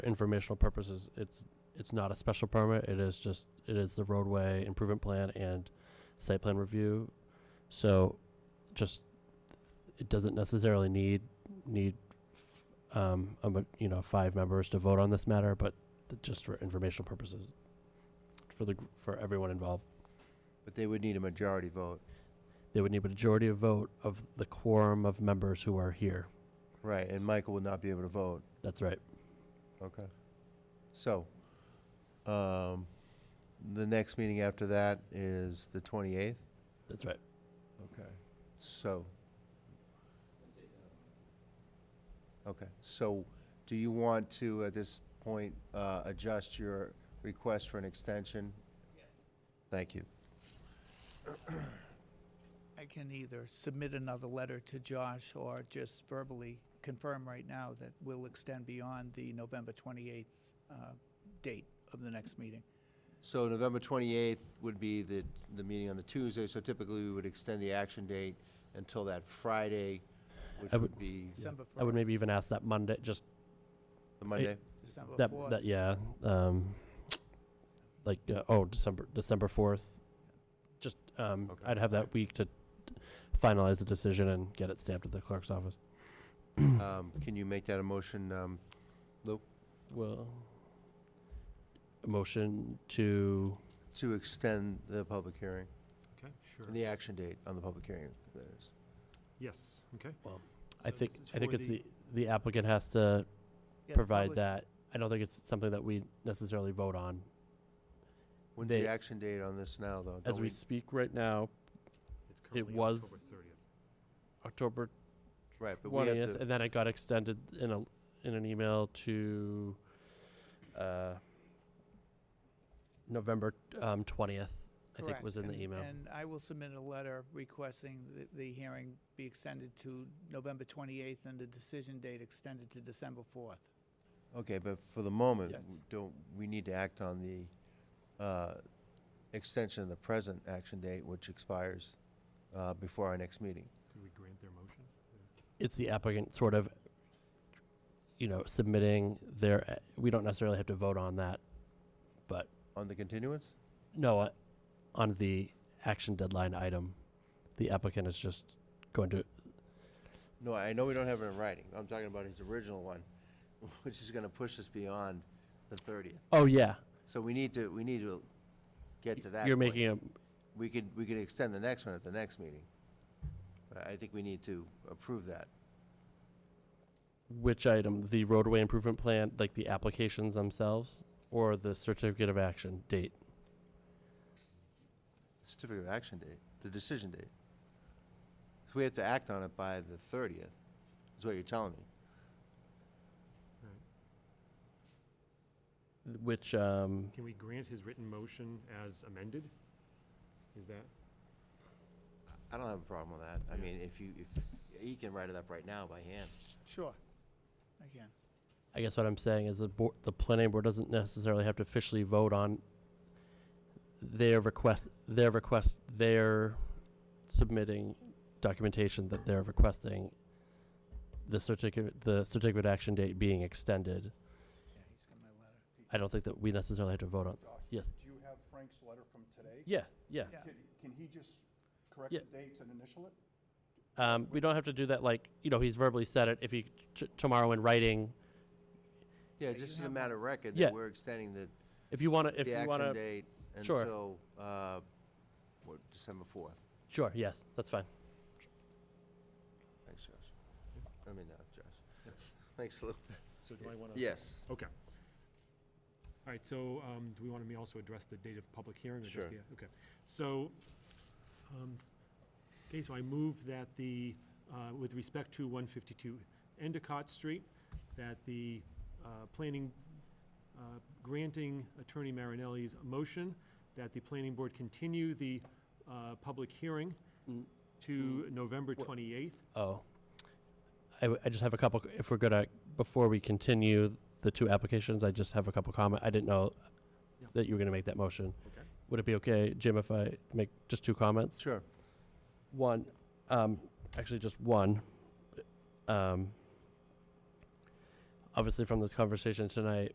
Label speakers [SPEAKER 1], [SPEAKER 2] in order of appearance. [SPEAKER 1] informational purposes, it's, it's not a special permit, it is just, it is the roadway improvement plan and site plan review. So just, it doesn't necessarily need, need, um, a ma- you know, five members to vote on this matter, but th- just for informational purposes, for the, gr- for everyone involved.
[SPEAKER 2] But they would need a majority vote.
[SPEAKER 1] They would need a majority of vote of the quorum of members who are here.
[SPEAKER 2] Right, and Michael would not be able to vote.
[SPEAKER 1] That's right.
[SPEAKER 2] Okay. So, um, the next meeting after that is the 28th?
[SPEAKER 1] That's right.
[SPEAKER 2] Okay. So. Okay, so do you want to, at this point, uh, adjust your request for an extension? Yes. Thank you.
[SPEAKER 3] I can either submit another letter to Josh or just verbally confirm right now that we'll extend beyond the November 28th uh, date of the next meeting.
[SPEAKER 2] So November 28th would be the, the meeting on the Tuesday, so typically we would extend the action date until that Friday, which
[SPEAKER 1] I
[SPEAKER 2] would be
[SPEAKER 3] December 1st.
[SPEAKER 1] I would maybe even ask that Monday, just
[SPEAKER 2] the Monday.
[SPEAKER 3] December
[SPEAKER 1] that,
[SPEAKER 3] 4th.
[SPEAKER 1] that, yeah, um, like, uh, oh, December, December fourth. Just, um,
[SPEAKER 2] Okay.
[SPEAKER 1] I'd have that week to finalize the decision and get it stamped at the clerk's office.
[SPEAKER 2] Um, Can you make that a motion? um,
[SPEAKER 1] Well, a motion to,
[SPEAKER 2] to extend the public hearing,
[SPEAKER 4] Okay, sure.
[SPEAKER 2] the action date on the public hearing, that is.
[SPEAKER 4] Yes, okay.
[SPEAKER 1] I
[SPEAKER 4] So
[SPEAKER 1] think,
[SPEAKER 4] this is
[SPEAKER 1] I think
[SPEAKER 4] for
[SPEAKER 1] it's
[SPEAKER 4] the-
[SPEAKER 1] the, the applicant has to
[SPEAKER 3] Yeah,
[SPEAKER 1] provide
[SPEAKER 3] public-
[SPEAKER 1] that. I don't think it's something that we necessarily vote on.
[SPEAKER 2] When's the
[SPEAKER 1] They-
[SPEAKER 2] action date on this now, though?
[SPEAKER 1] As
[SPEAKER 2] Don't
[SPEAKER 1] we speak right now,
[SPEAKER 4] It's currently
[SPEAKER 1] was-
[SPEAKER 4] October 30th.
[SPEAKER 1] October
[SPEAKER 2] Right, but we have
[SPEAKER 1] twentieth,
[SPEAKER 2] to,
[SPEAKER 1] and then it got extended in a in an email to uh, November um, twentieth. I think
[SPEAKER 3] correct.
[SPEAKER 1] was in the
[SPEAKER 3] And-
[SPEAKER 1] email.
[SPEAKER 3] And I will submit a letter requesting that the hearing be extended to November 28th and the decision date extended to December 4th.
[SPEAKER 2] okay, but for the moment,
[SPEAKER 1] Yes.
[SPEAKER 2] we don't, we need to act on the uh, extension of the present action date, which expires uh, before our next meeting.
[SPEAKER 4] Could we grant their motion?
[SPEAKER 1] it's the applicant sort of, you know, submitting their. uh, We don't necessarily have to vote on that.
[SPEAKER 2] On the continuance?
[SPEAKER 1] No, uh, on the action deadline item, the applicant is just going to.
[SPEAKER 2] No, I know we don't have it in writing. I'm talking about his original one, which is gonna push us beyond the thirtieth.
[SPEAKER 1] Oh yeah,
[SPEAKER 2] So we need to, we need to get to that.
[SPEAKER 1] you're
[SPEAKER 2] point.
[SPEAKER 1] making a
[SPEAKER 2] We could, we could extend the next one at the next meeting. But I think we need to approve that.
[SPEAKER 1] which item? The roadway improvement plan, like the applications themselves, or the certificate of action date.
[SPEAKER 2] Certificate of action date, the decision date. So we have to act on it by the thirtieth, is what you're telling me.
[SPEAKER 1] which um,
[SPEAKER 4] Can we grant his written motion as amended? Is that?
[SPEAKER 2] I don't have a problem with that. I
[SPEAKER 4] Yeah.
[SPEAKER 2] mean, if you, if, he can write it up right now by hand.
[SPEAKER 3] Sure, again.
[SPEAKER 1] I guess what I'm saying is the board, the planning board doesn't necessarily have to officially vote on their request, their request, their submitting documentation that they're requesting the certificate, the certificate action date being extended.
[SPEAKER 3] Yeah, he's got my letter.
[SPEAKER 1] I don't think that we necessarily have to vote on.
[SPEAKER 5] Josh?
[SPEAKER 1] Yes.
[SPEAKER 5] Do you have Frank's letter from today?
[SPEAKER 1] Yeah, yeah.
[SPEAKER 3] Yeah.
[SPEAKER 5] Can- Can he just correct
[SPEAKER 1] Yeah.
[SPEAKER 5] the dates and initial it?
[SPEAKER 1] Um, we don't have to do that. Like you know, he's verbally said it. If he t- tomorrow in writing,
[SPEAKER 2] Yeah,
[SPEAKER 3] Yeah, you
[SPEAKER 2] just as
[SPEAKER 3] can
[SPEAKER 2] a
[SPEAKER 3] have
[SPEAKER 2] matter of record,
[SPEAKER 1] Yeah.
[SPEAKER 2] that we're extending the
[SPEAKER 1] if you want to, if
[SPEAKER 2] the
[SPEAKER 1] you want
[SPEAKER 2] action
[SPEAKER 1] to,
[SPEAKER 2] date
[SPEAKER 1] Sure.
[SPEAKER 2] until, uh, what, December 4th?
[SPEAKER 1] sure. Yes, that's fine.
[SPEAKER 2] Thanks, Josh. I mean, not Josh. Thanks, Lou.
[SPEAKER 4] So do I want to?
[SPEAKER 2] Yes.
[SPEAKER 4] Okay. All right, so um, do we want to also address the date of public hearing? or just
[SPEAKER 2] Sure.
[SPEAKER 4] the- Okay, so, um, okay, so I move that the, uh, with respect to 152 Endicott Street, that the uh, planning, uh, granting Attorney Marinelli's motion that the planning board continue the uh, public hearing
[SPEAKER 1] Mm.
[SPEAKER 4] to November
[SPEAKER 1] Wha-
[SPEAKER 4] 28th.
[SPEAKER 1] Oh. I, w- I just have a couple, if we're gonna, before we continue the two applications, I just have a couple comment. I didn't know
[SPEAKER 4] Yeah.
[SPEAKER 1] that you were gonna make that motion.
[SPEAKER 4] Okay.
[SPEAKER 1] Would it be okay, Jim, if I make just two comments?
[SPEAKER 2] Sure.
[SPEAKER 1] One, um, actually just one. Um, obviously from this conversation tonight,